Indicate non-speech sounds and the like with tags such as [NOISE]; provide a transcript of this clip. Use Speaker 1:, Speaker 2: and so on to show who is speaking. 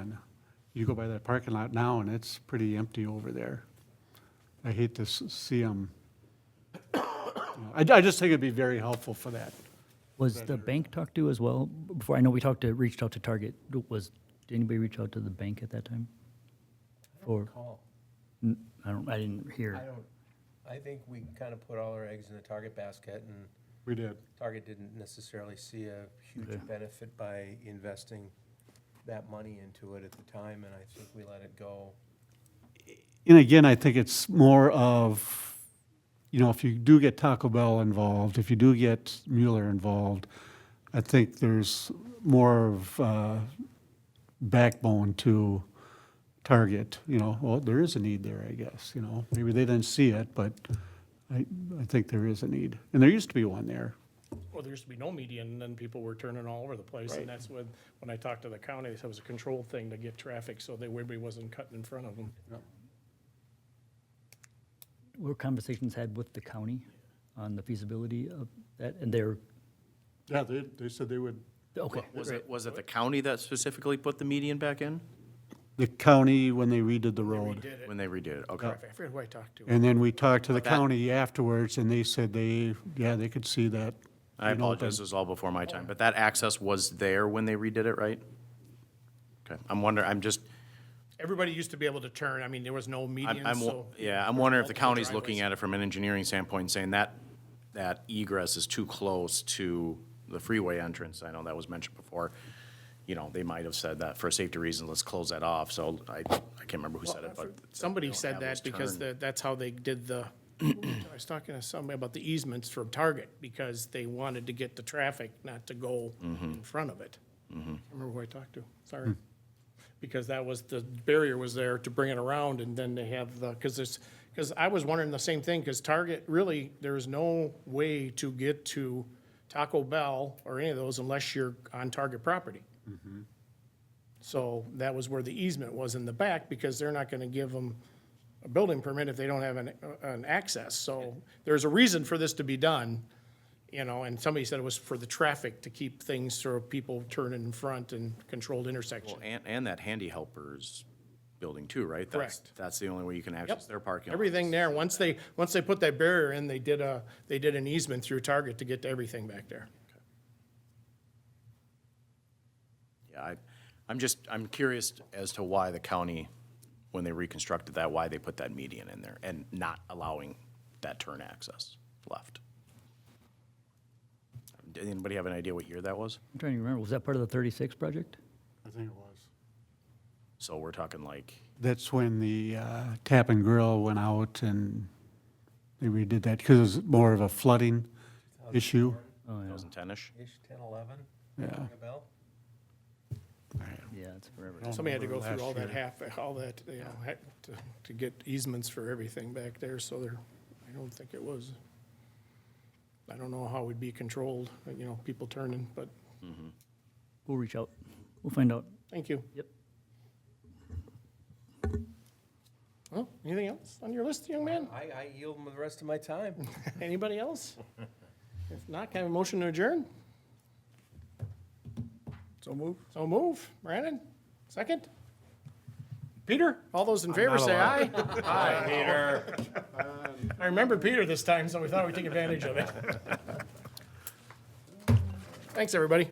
Speaker 1: And you go by that parking lot now, and it's pretty empty over there. I hate to s- see [COUGHS] them. I, I just think it'd be very helpful for that.
Speaker 2: Was the bank talked to as well? B- Before, I know we talked to, reached out to Target. D- Was, did anybody reach out to the bank at that time? Or,
Speaker 3: Call.
Speaker 2: N- I don't, I didn't hear.
Speaker 3: I don't, I think we kind of put all our eggs in the Target basket, and
Speaker 1: We did.
Speaker 3: Target didn't necessarily see a
Speaker 2: Okay.
Speaker 3: huge benefit by investing that money into it at the time, and I think we let it go.
Speaker 1: And again, I think it's more of, you know, if you do get Taco Bell involved, if you do get Mueller involved, I think there's more of uh, backbone to Target, you know, well, there is a need there, I guess, you know. Maybe they didn't see it, but I, I think there is a need. And there used to be one there.
Speaker 4: Well, there used to be no median, and then people were turning all over the place, and that's when, when I talked to the county, they said it was a controlled thing to get traffic, so that everybody wasn't cutting in front of them.
Speaker 2: Were conversations had with the county on the feasibility of that? And they're,
Speaker 1: Yeah, they, they said they would.
Speaker 2: okay,
Speaker 4: [LAUGHS]
Speaker 5: Was it, was it the county that specifically put the median back in?
Speaker 1: The county, when they redid the road.
Speaker 5: When they redid it, okay.
Speaker 4: I forget who I talked to.
Speaker 1: And then we talked to the
Speaker 5: that-
Speaker 1: county afterwards, and they said they, yeah, they could see that.
Speaker 5: I
Speaker 1: being open.
Speaker 5: apologize, this is all before my
Speaker 4: Oh.
Speaker 5: time, but that access was there when they redid it, right? Okay, I'm wondering, I'm just,
Speaker 4: Everybody used to be able to turn, I mean, there was no
Speaker 5: I'm,
Speaker 4: median,
Speaker 5: I'm,
Speaker 4: so.
Speaker 5: yeah, I'm wondering if the
Speaker 4: Multiple
Speaker 5: county's looking
Speaker 4: driveways.
Speaker 5: at it from an engineering standpoint, and saying that, that egress is too close to the freeway entrance, I know that was mentioned before. You know, they might have said that for safety reasons, let's close that off, so I, I can't remember who said it, but.
Speaker 4: Somebody
Speaker 5: Don't
Speaker 4: said
Speaker 5: have
Speaker 4: that
Speaker 5: those
Speaker 4: because
Speaker 5: turn-
Speaker 4: the, that's how they did the, [CLEARS THROAT] I was talking to somebody about the easements from Target, because they wanted to get the traffic, not to go
Speaker 5: Mm-hmm.
Speaker 4: in front of it. I can't Remember who I talked to, sorry.
Speaker 5: Hmm.
Speaker 4: Because that was, the barrier was there to bring it around, and then they have the, because there's, because I was wondering the same thing, because Target, really, there's no way to get to Taco Bell or any of those unless you're on Target property. So that was where the easement was in the back, because they're not gonna give them a building permit if they don't have an, an access. So there's a reason for this to be done, you know, and somebody said it was for the traffic, to keep things so people turn in front and controlled intersection.
Speaker 5: Well, And, and that handy helpers building too, right? That's-
Speaker 4: Correct.
Speaker 5: That's the only way you can access their parking. lot.
Speaker 4: Everything there, once they, once they put that barrier in, they did a, they did an easement through Target to get to everything back there.
Speaker 5: Yeah, I, I'm just, I'm curious as to why the county, when they reconstructed that, why they put that median in there and not allowing that turn access left. Did anybody have an idea what year that was?
Speaker 2: I'm trying to remember, was that part of the thirty-six project?
Speaker 1: I think it was.
Speaker 5: So we're talking like,
Speaker 1: That's when the uh, Tap and Grill went out and they redid that because it was more of a flooding issue.
Speaker 5: 2010-ish?
Speaker 3: Ish, ten, eleven?
Speaker 1: Yeah.
Speaker 3: Ring a bell?
Speaker 2: Yeah, it's forever.
Speaker 4: Somebody had to go through
Speaker 1: Remember
Speaker 4: all that
Speaker 1: last
Speaker 4: half, all that, you know, heck, to, to get easements for everything back there, so there, I don't think it was. I don't know how it'd be controlled, you know, people turning, but,
Speaker 2: We'll reach out. We'll find out.
Speaker 4: thank you.
Speaker 2: Yep.
Speaker 4: Well, anything else on your list, young man?
Speaker 3: I, I yield the rest of my time.
Speaker 4: Anybody else? If not, can I have a motion to adjourn?
Speaker 3: So move.
Speaker 4: So move. Brandon, second? Peter, all those in favor
Speaker 5: not
Speaker 4: say aye. Aye, Peter. I remember Peter this time, so we thought we'd take advantage of it. Thanks, everybody.